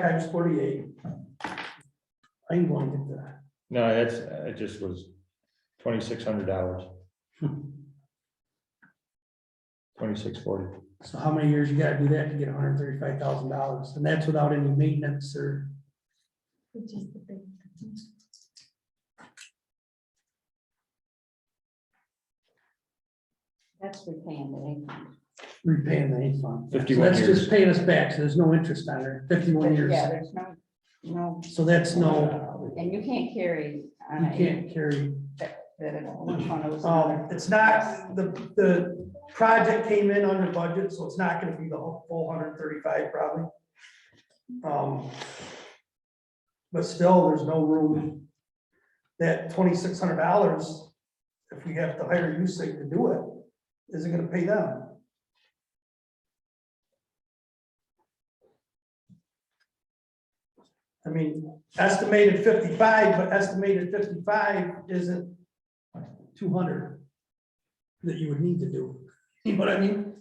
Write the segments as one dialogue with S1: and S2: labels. S1: times forty-eight. I wanted that.
S2: No, that's, it just was twenty-six hundred dollars, twenty-six forty.
S1: So how many years you gotta do that to get hundred and thirty-five thousand dollars? And that's without any maintenance or,
S3: Which is the big.
S4: That's repaying the income.
S1: repaying the eight fund. So
S2: 51
S1: That's
S2: years.
S1: just paying us back, so there's no interest on it, fifty-one years.
S4: Yeah, there's no, no,
S1: So that's no,
S4: and you can't carry on
S1: you
S4: a,
S1: can't carry.
S4: that it one of
S1: Um,
S4: those.
S1: it's not, the, the project came in under budget, so it's not gonna be the whole full hundred and thirty-five probably. Um, But still, there's no room. That twenty-six hundred dollars, if we have to hire USIG to do it, is it gonna pay them? I mean, estimated fifty-five, but estimated fifty-five isn't two hundred that you would need to do. You know what I mean?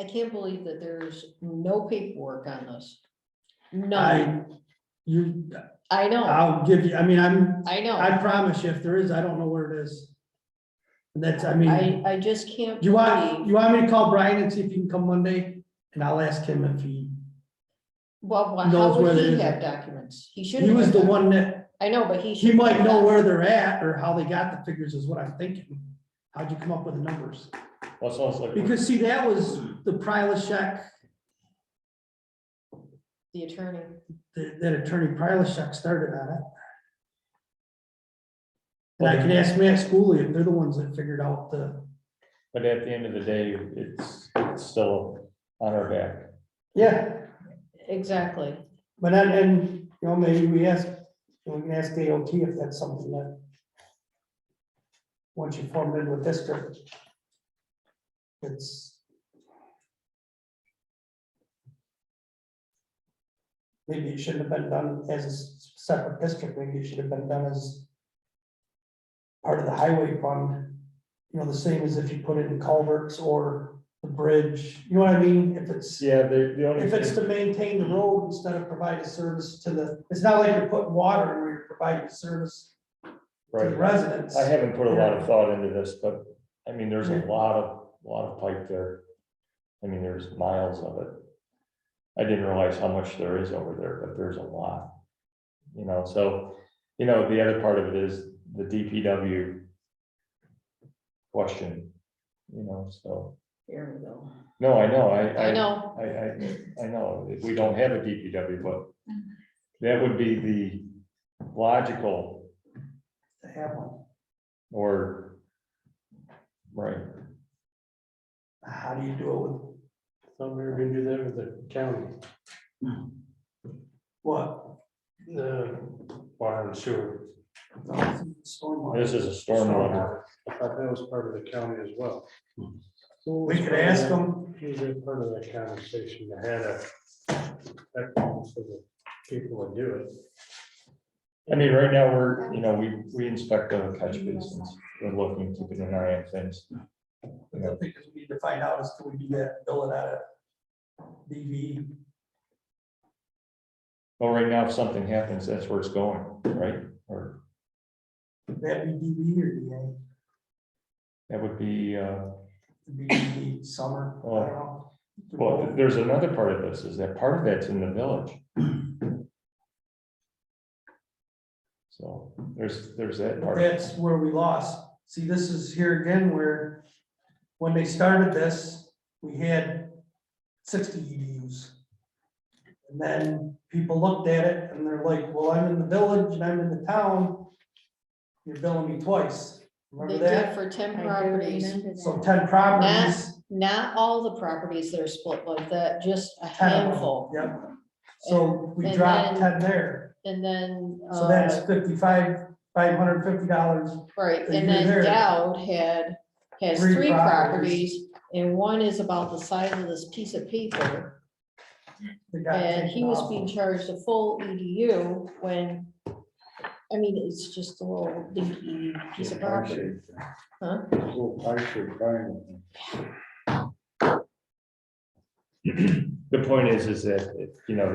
S5: I can't believe that there's no paperwork on this.
S1: I,
S5: None.
S1: you,
S5: I know,
S1: I'll give you, I mean, I'm,
S5: I
S1: I
S5: know.
S1: promise you, if there is, I don't know where it is. And That's, I mean,
S5: I, I just can't.
S1: you want,
S5: believe-
S1: you want me to call Brian and see if he can come Monday? And I'll ask him if he,
S5: Well, why-
S1: knows
S5: how
S1: where
S5: would
S1: it
S5: he
S1: is.
S5: have documents? He shouldn't.
S1: he was
S5: have
S1: the
S5: doc-
S1: one that,
S5: I know, but he.
S1: he
S5: should
S1: might
S5: have
S1: know
S5: doc-
S1: where they're at or how they got the figures is what I'm thinking. How'd you come up with the numbers?
S2: Well, it's almost like, we're-
S1: Because see, that was the Prilashek,
S5: The attorney.
S1: that that attorney Prilashek started on it. And I can ask Matt Schooley, if they're the ones that figured out the.
S2: but at the end of the day, it's, it's still on our back.
S1: Yeah.
S5: Exactly.
S1: But then, and, you know, maybe we ask, we can ask DOT if that's something that. Once you form in with district. It's. Maybe it shouldn't have been done as a s- separate district, maybe it should have been done as. Part of the highway fund, you know, the same as if you put it in culverts or the bridge, you know what I mean, if it's.
S2: Yeah, the, the only.
S1: If it's
S2: thing-
S1: to maintain the road instead of provide a service to the, it's not like you're putting water where you're providing service to the
S2: Right,
S1: residents.
S2: I haven't put a lot of thought into this, but, I mean, there's a lot of, lot of pipe there. I mean, there's miles of it. I didn't realize how much there is over there, but there's a lot. You know, so, you know, the other part of it is the DPW question, you know, so,
S5: Here we go.
S2: no, I know, I,
S5: I know.
S2: I, I, I know, if we don't have a DPW, but that would be the logical
S1: To have one.
S2: or, right,
S1: How do you do it with
S6: Thought we were gonna do that with the county,
S1: what?
S6: the water and sewer.
S1: Stormwater.
S2: this is a stormwater.
S6: I thought that was part of the county as well.
S1: Hmm. We could ask them,
S6: Is it part of that conversation to have a, that for the people to do it?
S2: I mean, right now, we're, you know, we, we inspect the catch basins, we're looking, keeping an eye on things.
S1: but the thing is we need to find out is can we do that, bill it out of DV,
S2: Well, right now, if something happens, that's where it's going, right? Or
S1: that be DV or DA?
S2: that would be, uh,
S1: It'd Be DV summer, I don't know.
S2: well, there's another part of this, is that part of that's in the village. So there's, there's that
S1: But
S2: part.
S1: That's where we lost. See, this is here again where, when they started this, we had sixty EDUs. And then people looked at it and they're like, well, I'm in the village and I'm in the town. You're billing me twice.
S5: They
S1: Remember
S5: did
S1: that?
S5: for ten
S4: I do
S5: properties,
S4: remember that.
S1: So ten properties.
S5: not all the properties that are split like that, just a
S1: 10 of them,
S5: handful.
S1: Yep. So we
S5: And
S1: dropped
S5: then-
S1: ten there.
S5: And then.
S1: So that's
S5: uh,
S1: fifty-five, five hundred fifty dollars.
S5: Right,
S1: So
S5: and
S1: you're there.
S5: then Dowd had, has
S1: Three
S5: three
S1: properties.
S5: properties, and one is about the size of this piece of paper. And he was being charged a full EDU when, I mean, it's just a little dinky piece of property. Huh?
S6: Little pipes are crying.
S2: The point is, is that, you know,